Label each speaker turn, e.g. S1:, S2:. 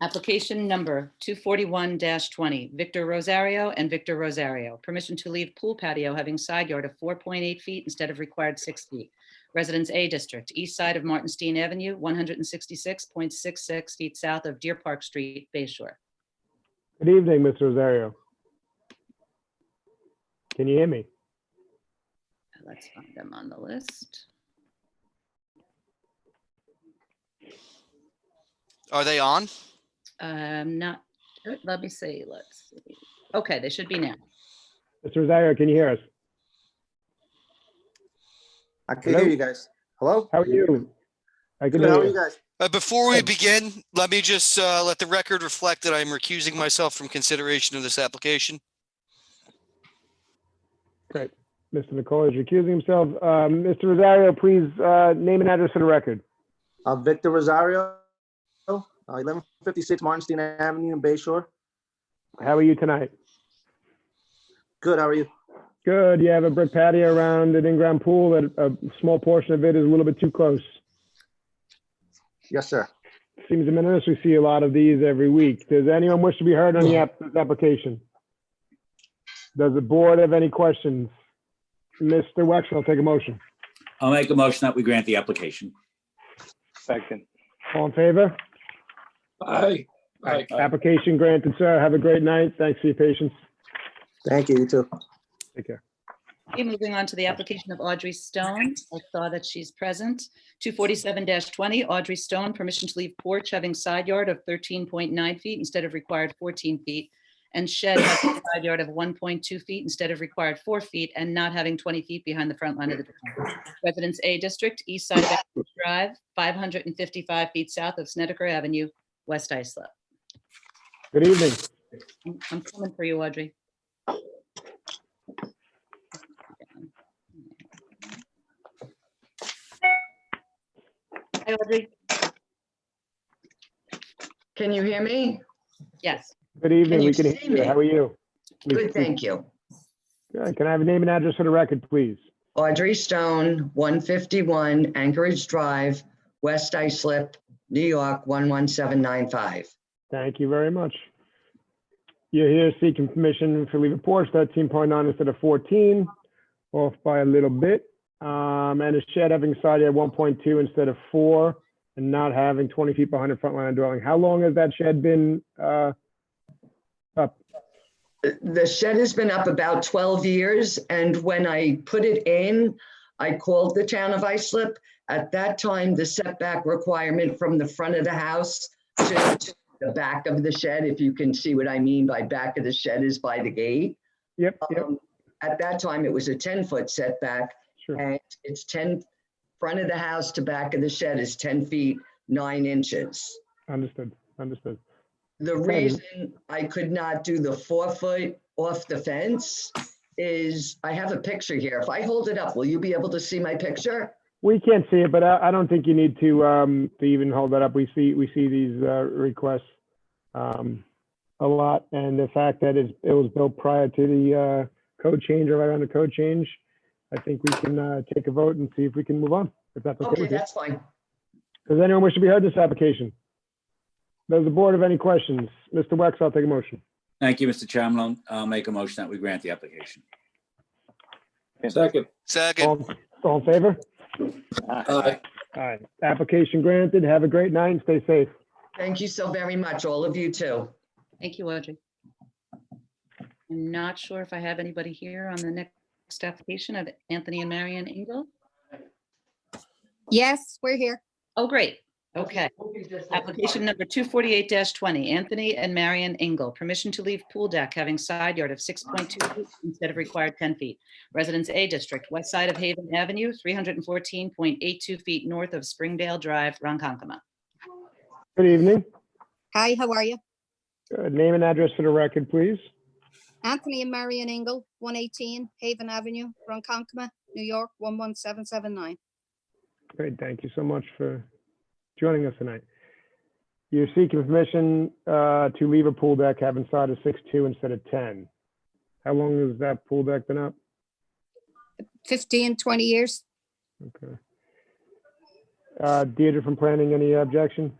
S1: Application number 241-20, Victor Rosario and Victor Rosario. Permission to leave pool patio having side yard of 4.8 feet instead of required 6 feet. Residence A District, east side of Martinstein Avenue, 166.66 feet south of Deer Park Street, Bay Shore.
S2: Good evening, Mr. Rosario. Can you hear me?
S1: Let's find them on the list.
S3: Are they on?
S1: Um, Not, uh, let me see, let's, see. okay, they should be now.
S2: Mr. Rosario, can you hear us?
S4: I can hear
S2: Hello?
S4: you guys. Hello?
S2: How are you? I can
S4: Good, how
S2: hear
S4: are you
S2: you.
S4: guys?
S3: Uh, before we
S2: Good.
S3: begin, let me just uh, let the record reflect that I'm recusing myself from consideration of this application.
S2: Great. Mr. Nicole is recusing himself. Um, Mr. Rosario, please uh, name and address for the record.
S4: I'm Victor Rosario, uh, 1156 Martinstein Avenue in Bay Shore.
S2: How are you tonight?
S4: Good, how are you?
S2: Good. You have a brick patio around an in-ground pool that a small portion of it is a little bit too close.
S4: Yes, sir.
S2: Seems de minimis. We see a lot of these every week. Does anyone wish to be heard on the app- this application? Does the board have any questions? Mr. Wexler, I'll take a motion.
S5: I'll make a motion that we grant the application.
S6: Second.
S2: All in favor?
S6: Aye. Aye.
S2: Uh, Application granted, sir. Have a great night. Thanks for your patience.
S4: Thank you, you too.
S2: Take care.
S1: Okay, moving on to the application of Audrey Stone. I saw that she's present. 247-20, Audrey Stone, permission to leave porch having side yard of 13.9 feet instead of required 14 feet, and shed having a side yard of 1.2 feet instead of required 4 feet, and not having 20 feet behind the front line of the building. Residence A District, East Side Bathurst Drive, 555 feet south of Snedeker Avenue, West Islip.
S2: Good evening.
S1: I'm I'm coming for you, Audrey. Hi, Audrey.
S7: Can you hear me?
S1: Yes,
S2: Good evening.
S7: Can you
S2: We can hear
S7: see
S2: you.
S7: me?
S2: How are you? We- we-
S7: Good, thank you.
S2: Good. Can I have a name and address for the record, please?
S7: Audrey Stone, 151 Anchorage Drive, West Islip, New York, 11795.
S2: Thank you very much. You're here seeking permission for leave of porch, 13.9 instead of 14, off by a little bit. Um, And a shed having side yard 1.2 instead of 4, and not having 20 feet behind the front line of dwelling. How long has that shed been uh,
S7: The shed has been up about 12 years, and when I put it in, I called the town of Islip. At that time, the setback requirement from the front of the house to to the back of the shed, if you can see what I mean by back of the shed is by the gate.
S2: Yep, yep,
S7: Um, At that time, it was a 10-foot setback,
S2: sure.
S7: And it's 10, front of the house to back of the shed is 10 feet, 9 inches.
S2: Understood, understood.
S7: The reason I could not do the four foot off the fence is, I have a picture here. If I hold it up, will you be able to see my picture?
S2: We can't see it, but I, I don't think you need to, um, to even hold that up. We see, we see these, uh, requests, um, a lot. And the fact that it's, it was built prior to the, uh, code change or right around the code change, I think we can, uh, take a vote and see if we can move on, if that's okay
S7: Okay,
S2: with you.
S7: that's fine.
S2: Does anyone wish to be heard in this application? Does the board have any questions? Mr. Wex, I'll take a motion.
S5: Thank you, Mr. Chairman. I'll- I'll make a motion that we grant the application.
S6: Second.
S3: Second,
S2: All, all in favor?
S6: Aye.
S2: All right. Application granted. Have a great night and stay safe.
S7: Thank you so very much, all of you too.
S1: thank you, Audrey. I'm not sure if I have anybody here on the next application of Anthony and Marion Engel.
S8: Yes, we're here.
S1: Oh, great. Okay. Application number 248-20, Anthony and Marion Engel. Permission to leave pool deck having side yard of 6.2 feet instead of required 10 feet. Residence A District, west side of Haven Avenue, 314.82 feet north of Springdale Drive, Ronkonkoma.
S2: Good evening.
S8: Hi, how are you?
S2: Good. Name and address for the record, please.
S8: Anthony and Marion Engel, 118 Haven Avenue, Ronkonkoma, New York, 11779.
S2: Great, thank you so much for joining us tonight. You're seeking permission uh, to leave a pool deck having side of six-two instead of ten. How long has that pool deck been up?
S8: 15, 20 years.
S2: Okay. Uh, Deirdre from planning, any objection?